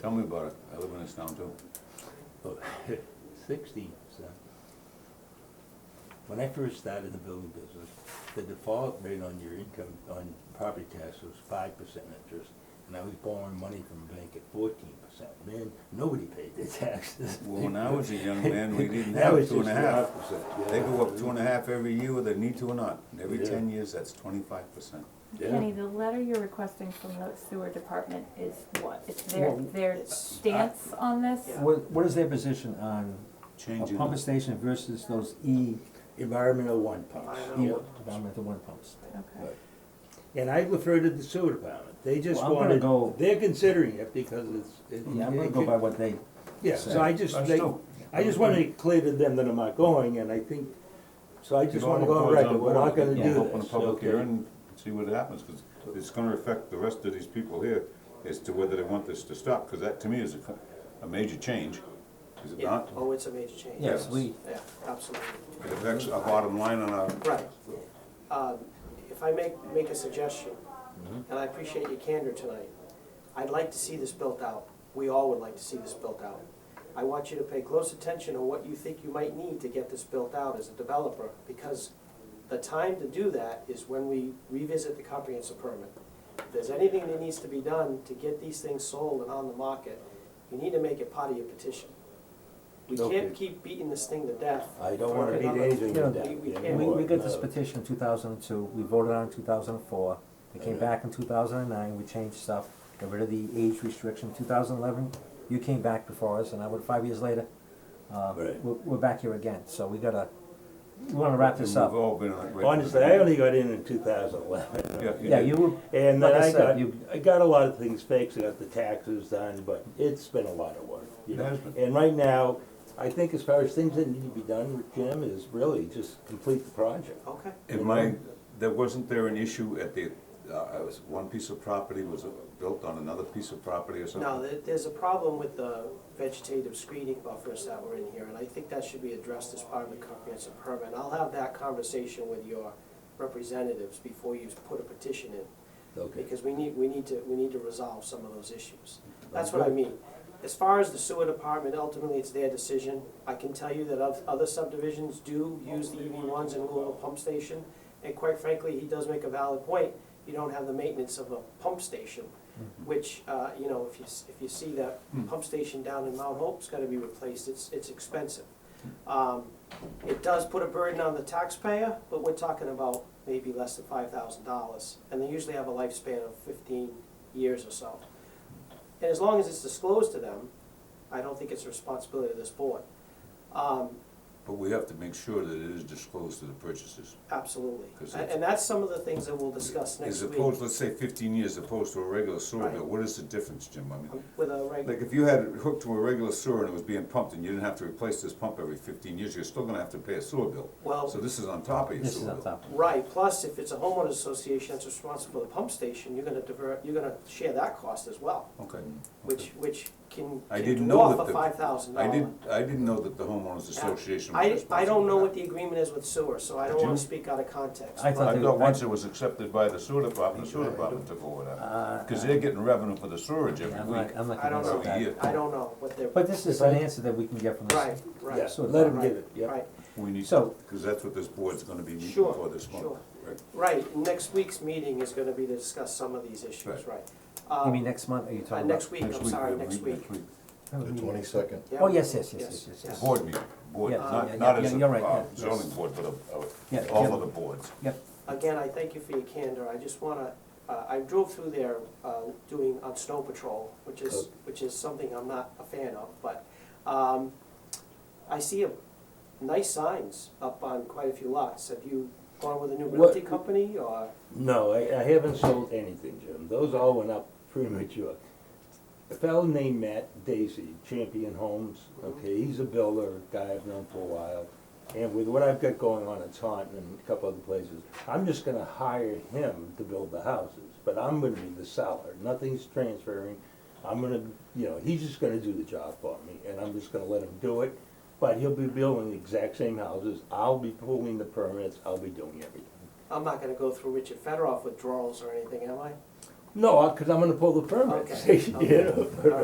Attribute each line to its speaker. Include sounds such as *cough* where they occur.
Speaker 1: Tell me about it, I live in this town too.
Speaker 2: *laughs* Sixty percent. When I first started the building business, the default rate on your income, on property tax was five percent interest. And I was borrowing money from a bank at fourteen percent, man, nobody paid their taxes.
Speaker 1: Well, when I was a young man, we
Speaker 2: *laughs*
Speaker 1: didn't
Speaker 2: That
Speaker 1: have
Speaker 2: was
Speaker 1: two and a
Speaker 2: just the
Speaker 1: half.
Speaker 2: opposite,
Speaker 1: They
Speaker 2: yeah.
Speaker 1: go up two and a half every year whether they need to or not, and every
Speaker 2: Yeah.
Speaker 1: ten years, that's twenty-five percent.
Speaker 2: Yeah.
Speaker 3: Kenny, the letter you're requesting from the sewer department is what? It's their,
Speaker 4: Well,
Speaker 3: their stance on this?
Speaker 4: What, what is their position on a
Speaker 1: Changing,
Speaker 4: pump
Speaker 1: the-
Speaker 4: station versus those E,
Speaker 2: Environmental one pumps.
Speaker 4: E, environmental water pumps?
Speaker 3: Okay.
Speaker 2: And I refer to the sewer department, they just
Speaker 4: Well, I'm gonna
Speaker 2: wanted,
Speaker 4: go-
Speaker 2: they're considering it because it's. it-
Speaker 4: Yeah, I'm gonna
Speaker 2: it
Speaker 4: go
Speaker 2: could-
Speaker 4: by what they,
Speaker 2: Yeah, so I just,
Speaker 5: Us
Speaker 2: they,
Speaker 5: too.
Speaker 2: I just wanna make clear to them that I'm not going, and I think, so I just
Speaker 1: If
Speaker 2: wanna
Speaker 1: all
Speaker 2: go on
Speaker 1: boards
Speaker 2: record,
Speaker 1: on
Speaker 2: we're
Speaker 1: board,
Speaker 2: not gonna
Speaker 4: yeah,
Speaker 2: do this.
Speaker 1: Open a public
Speaker 2: okay?
Speaker 1: hearing and see what happens, because it's gonna affect the rest of these people here as to whether they want this to stop, because that to me is a, co- a major change, is it
Speaker 6: Yeah.
Speaker 1: not?
Speaker 6: Oh, it's a major change.
Speaker 4: yes, we,
Speaker 6: Yeah, absolutely,
Speaker 1: It affects our bottom line on our,
Speaker 6: right. Um, If I make, make a suggestion, and I appreciate your candor tonight, I'd like to see this built out. We all would like to see this built out. I want you to pay close attention on what you think you might need to get this built out as a developer, because the time to do that is when we revisit the comprehensive permit. If there's anything that needs to be done to get these things sold and on the market, you need to make it part of your petition. We
Speaker 2: Okay.
Speaker 6: can't keep beating this thing to death.
Speaker 2: I don't wanna
Speaker 6: Fucking
Speaker 2: beat
Speaker 6: other-
Speaker 2: anything
Speaker 6: Yeah.
Speaker 2: to death.
Speaker 6: We- we can't.
Speaker 2: anymore,
Speaker 6: And
Speaker 4: we, we got this
Speaker 6: uh,
Speaker 2: no.
Speaker 4: petition in two thousand and two, we voted on it in two thousand and four, it came
Speaker 2: Yeah.
Speaker 4: back in two thousand and nine, we changed stuff, got rid of the age restriction, two thousand and eleven, you came back before us, and I would, five years later, uh, we're,
Speaker 2: Right.
Speaker 4: we're back here again, so we gotta, we wanna wrap
Speaker 1: we've
Speaker 4: this up.
Speaker 1: all been on it. right from the
Speaker 2: Honestly, I only got in in two thousand eleven, *laughs*
Speaker 1: beginning. Yeah,
Speaker 4: Yeah,
Speaker 1: did.
Speaker 4: you were,
Speaker 2: and
Speaker 4: Like
Speaker 2: then
Speaker 4: I
Speaker 2: I
Speaker 4: said,
Speaker 2: got,
Speaker 4: you-
Speaker 2: I got a lot of things fixed, I got the taxes done, but it's been a lot of work, you
Speaker 1: It
Speaker 2: know?
Speaker 1: has been.
Speaker 2: And right now, I think as far as things that need to be done, Jim, is really just complete the project.
Speaker 6: Okay.
Speaker 1: In my, there, wasn't there an issue at the, uh, I was, one piece of property was uh, built on another piece of property or something?
Speaker 6: No, there, there's a problem with the vegetative screening buffers that were in here, and I think that should be addressed as part of the comprehensive permit. I'll have that conversation with your representatives before you put a petition in,
Speaker 2: Okay.
Speaker 6: because we need, we need to, we need to resolve some of those issues. That's what I mean. As far as the sewer department, ultimately, it's their decision. I can tell you that oth- other subdivisions do use the EV ones in lieu of a pump station. And quite frankly, he does make a valid point. You don't have the maintenance of a pump station, which, uh, you know, if you, s- if you see that pump station down in Mount Hope's gotta be replaced, it's, it's expensive. Um, It does put a burden on the taxpayer, but we're talking about maybe less than five thousand dollars. And they usually have a lifespan of fifteen years or so. And as long as it's disclosed to them, I don't think it's a responsibility of this board. Um,
Speaker 1: But we have to make sure that it is disclosed to the purchasers.
Speaker 6: absolutely.
Speaker 1: 'Cause
Speaker 6: And
Speaker 1: it's-
Speaker 6: and that's some of the things that we'll discuss next
Speaker 1: As
Speaker 6: week
Speaker 1: opposed, let's say fifteen years opposed to a regular sewer
Speaker 6: Right.
Speaker 1: bill, what is the difference, Jim? I mean,
Speaker 6: um, with a reg,
Speaker 1: like if you had it hooked to a regular sewer and it was being pumped and you didn't have to replace this pump every fifteen years, you're still gonna have to pay a sewer bill. So
Speaker 6: well,
Speaker 1: this is on top of your
Speaker 4: this is
Speaker 1: sewer
Speaker 4: on
Speaker 1: bill.
Speaker 4: top,
Speaker 6: right, plus if it's a homeowners association that's responsible for the pump station, you're gonna divert, you're gonna share that cost as well,
Speaker 1: Okay.
Speaker 6: which, which can
Speaker 1: I
Speaker 6: can
Speaker 1: didn't know
Speaker 6: dwarf
Speaker 1: that
Speaker 6: a
Speaker 1: the-
Speaker 6: five thousand
Speaker 1: I
Speaker 6: dollar.
Speaker 1: didn't, I didn't know that the homeowners association was
Speaker 6: I,
Speaker 1: responsible.
Speaker 6: I don't know
Speaker 1: for
Speaker 6: what
Speaker 1: that.
Speaker 6: the agreement is with sewer, so I don't
Speaker 1: Did
Speaker 6: wanna
Speaker 1: you?
Speaker 6: speak out of context.
Speaker 4: I
Speaker 6: but-
Speaker 4: thought
Speaker 1: I
Speaker 4: they-
Speaker 1: thought once it was accepted by the sewer department, the sewer department took over that.
Speaker 4: uh,
Speaker 1: Because they're getting revenue for the sewerage every
Speaker 4: I'm
Speaker 1: week.
Speaker 4: not, I'm not
Speaker 6: I don't
Speaker 4: convinced of
Speaker 1: know.
Speaker 4: that.
Speaker 6: I don't know what they're,
Speaker 4: But this is an answer that we can get from the
Speaker 6: right,
Speaker 2: Yeah,
Speaker 6: right,
Speaker 2: so let them give it, yeah.
Speaker 6: right.
Speaker 1: We need,
Speaker 4: So-
Speaker 1: because that's what this board's gonna be meeting
Speaker 6: Sure,
Speaker 1: for this month.
Speaker 6: sure.
Speaker 1: right?
Speaker 6: Right, next week's meeting is gonna be to discuss some of these issues,
Speaker 1: Right.
Speaker 6: right?
Speaker 4: You
Speaker 6: Um,
Speaker 4: mean next month, are you
Speaker 6: uh,
Speaker 4: talking about?
Speaker 6: Next week, I'm sorry,
Speaker 1: we'll
Speaker 6: next
Speaker 1: meet
Speaker 6: week.
Speaker 5: The twenty-second.
Speaker 6: Yeah.
Speaker 4: Oh, yes, yes, yes, yes, yes,
Speaker 6: Yes.
Speaker 4: yes.
Speaker 1: Board meeting, board,
Speaker 4: Yeah,
Speaker 1: not,
Speaker 4: yeah,
Speaker 1: not
Speaker 4: yeah,
Speaker 1: as a
Speaker 4: you're right,
Speaker 1: uh,
Speaker 4: yeah.
Speaker 1: zoning
Speaker 4: Yes.
Speaker 1: board, but a-
Speaker 4: Yeah,
Speaker 1: a- all
Speaker 4: yeah.
Speaker 1: of the boards.
Speaker 4: Yep,
Speaker 6: Again, I thank you for your candor, I just wanna, uh, I drove through there, uh, doing, on snow patrol, which is,
Speaker 2: Good.
Speaker 6: which is something I'm not a fan of, but, um, I see a, nice signs up on quite a few lots. Have you gone with a new
Speaker 2: What-
Speaker 6: realty company, or?
Speaker 2: No, I, I haven't sold anything, Jim. Those all went up premature. A fellow named Matt Daisy, Champion Homes, okay, he's a builder, guy I've known for a while. And with what I've got going on at Taunton and a couple other places, I'm just gonna hire him to build the houses, but I'm gonna be the seller. Nothing's transferring. I'm gonna, you know, he's just gonna do the job for me, and I'm just gonna let him do it. But he'll be building the exact same houses. I'll be pulling the permits. I'll be doing everything.
Speaker 6: I'm not gonna go through Richard Federoff withdrawals or anything, am I?
Speaker 2: *laughs* No, because I'm gonna pull the permit.
Speaker 6: Okay, okay.
Speaker 2: You know?